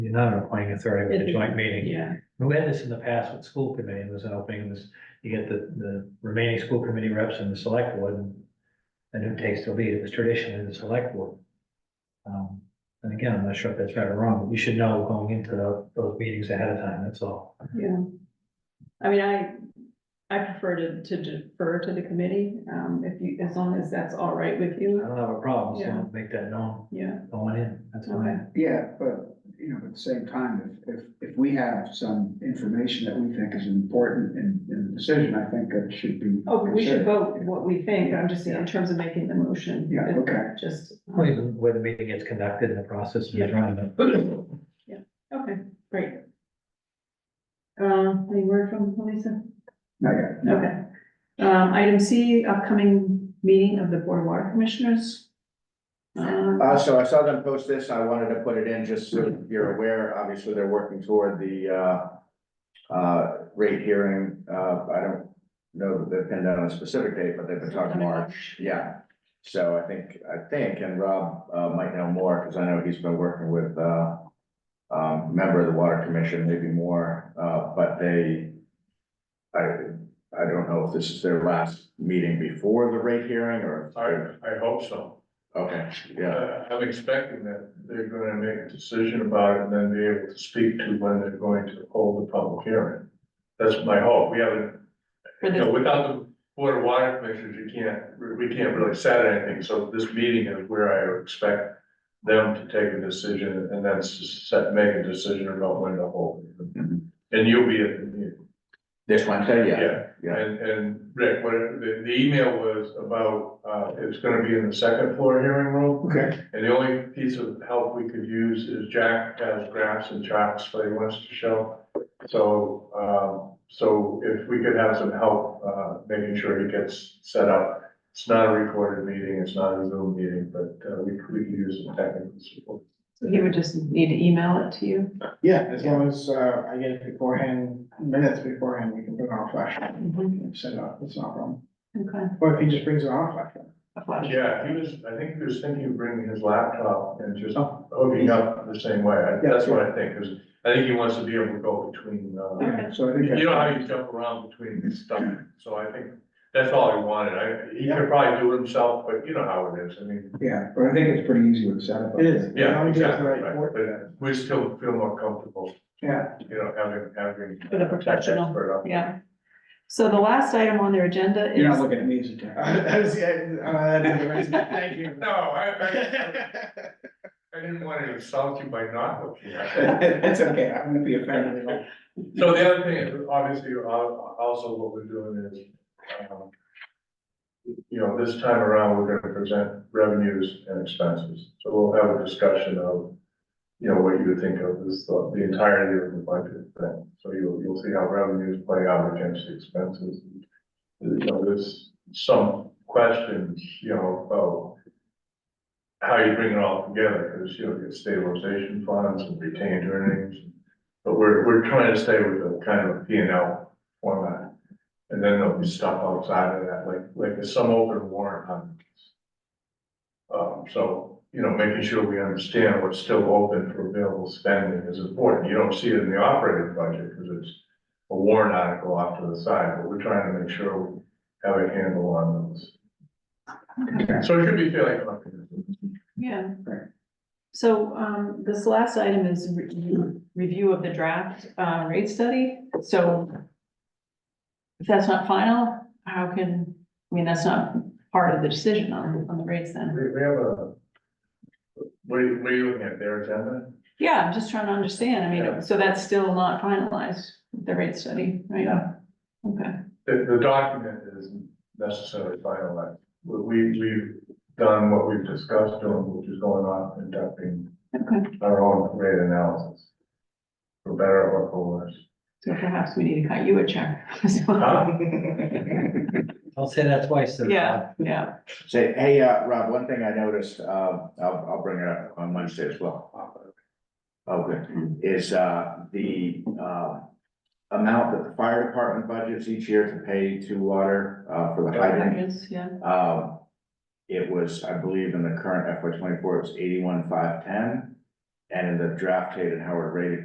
not an appointing authority, but a joint meeting. Yeah, We had this in the past with school committee, it was an opening, it was, you get the, the remaining school committee reps and the select board. and- And who takes the lead, it was tradition in the select board. Um, and again, I'm not sure if that's right or wrong, but you should know going into tho- those meetings ahead of time, that's all. yeah. I mean, I, I prefer to, to defer to the committee, um, if you, as long as that's all right with I you, don't have a problem, Yeah. Mm-hmm. so make that known yeah, going in, that's okay. fine. Yeah, but, you know, at the same time, if, if, if we have some information that we think is important in, in the decision, I think that should be. Oh, we should considered. vote what we think, I'm just saying in terms of making the motion. Yeah, it- okay. Just, um, Well, even where the meeting gets conducted and the process Yeah. and running it. okay, great. Um, any word from Lisa? Not yet, no. Okay. Um, item C, upcoming meeting of the Board of Water Commissioners. Um, Uh, so I saw them post this, I wanted to put it in just so you're aware, obviously they're working toward the, uh, uh, rate hearing, uh, I don't know that they've pinned down a specific date, but they've been talking March, yeah. So I think, I think, and Rob, uh, might know more, because I know he's been working with, uh, um, member of the Water Commission, maybe more, uh, but they, I, I don't know if this is their last meeting before the rate hearing, or. I, I hope so. Okay, yeah. Uh, I'm expecting that they're gonna make a decision about it and then be able to speak to when they're going to hold the public hearing. That's my hope. We haven't, For you this, know, without the Board of Water Commissioners, you can't, we we can't really set anything. So this meeting is where I expect them to take a decision and then s- set, make a decision about when to hold it. Mhm. And you'll be at the meeting. This Wednesday, yeah, yeah. And, and Rick, what, it- the, the email was about, uh, it's gonna be in the second floor hearing room. Okay, And the only piece of help we could use is Jack has graphs and charts that he wants to show. So, um, so if we could have some help, uh, making sure he gets set up. It's not a recorded meeting, it's not a Zoom meeting, but, uh, we, we could use some technical support. he would just need to email it to you. yeah, as long as, uh, I get it beforehand, minutes beforehand, we can put on a flash, and set it up, it's not a problem. Okay. Or if he just brings it on a flash. drive. Yeah, he was, I think he was thinking of bringing his laptop and just Oh. hooking up the same way. I- Yeah. That's what I think, because I think he wants to be able to go between, uh, Okay. So I think. You know how you jump around between stuff, so I think that's all he wanted, I, he could probably do it himself, but you know how it is, I mean. Yeah, but I think it's pretty easy with setup. It is. Yeah, exactly, right, but we still feel more comfortable, Yeah, you know, having, having. With a professional. tech expert up. Yeah. So the last item on their agenda you're not is, looking at me as a tech. I was, thank you. No, I, I, I didn't want to insult you by not looking at it. It's okay, I'm gonna be offended at all. So the other thing, obviously, al- also what we're doing is, um, you know, this time around, we're gonna present revenues and expenses. So we'll have a discussion of, you know, what you would think of as the the entirety of the budget thing. So you'll, you'll see how revenues play out against the expenses. You know, there's some questions, you know, about how you bring it all together, because, you know, you have stabilization funds and retained earnings and but we're, we're trying to stay with a kind of P and L format. And then there'll be stuff outside of that, like, like there's some open warrant on. Um, so, you know, making sure we understand what's still open for available spending is important. You don't see it in the operating budget because it's a warrant article off to the side, but we're trying to make sure we have a handle on those. So it should be fairly comprehensive. yeah. Right. So, um, this last item is re- review of the draft, uh, rate study, so if that's not final, how can, I mean, that's not part of the decision on, on the rates then. We, we have a, what are you, what are you looking at, their agenda? Yeah, I'm just trying to understand, I Yeah. mean, so that's still not finalized, the rate study, right? Yeah. Okay, The, the document isn't necessarily finalized. We- We, we've done what we've discussed doing, which is going on conducting okay, our own rate analysis. For better or for worse. so perhaps we need to cut you a check as well. Huh? I'll say that twice. then. Yeah, yeah, Say, hey, uh, Rob, one thing I noticed, uh, I'll, I'll bring it up on Wednesday as well. Oh, good, is, uh, the, uh, amount that the fire department budgets each year to pay to water, uh, for the There hydrant. it is, yeah, Um, it was, I believe in the current FY twenty-four, it was eighty-one, five, ten. and in the draft date and how we're rated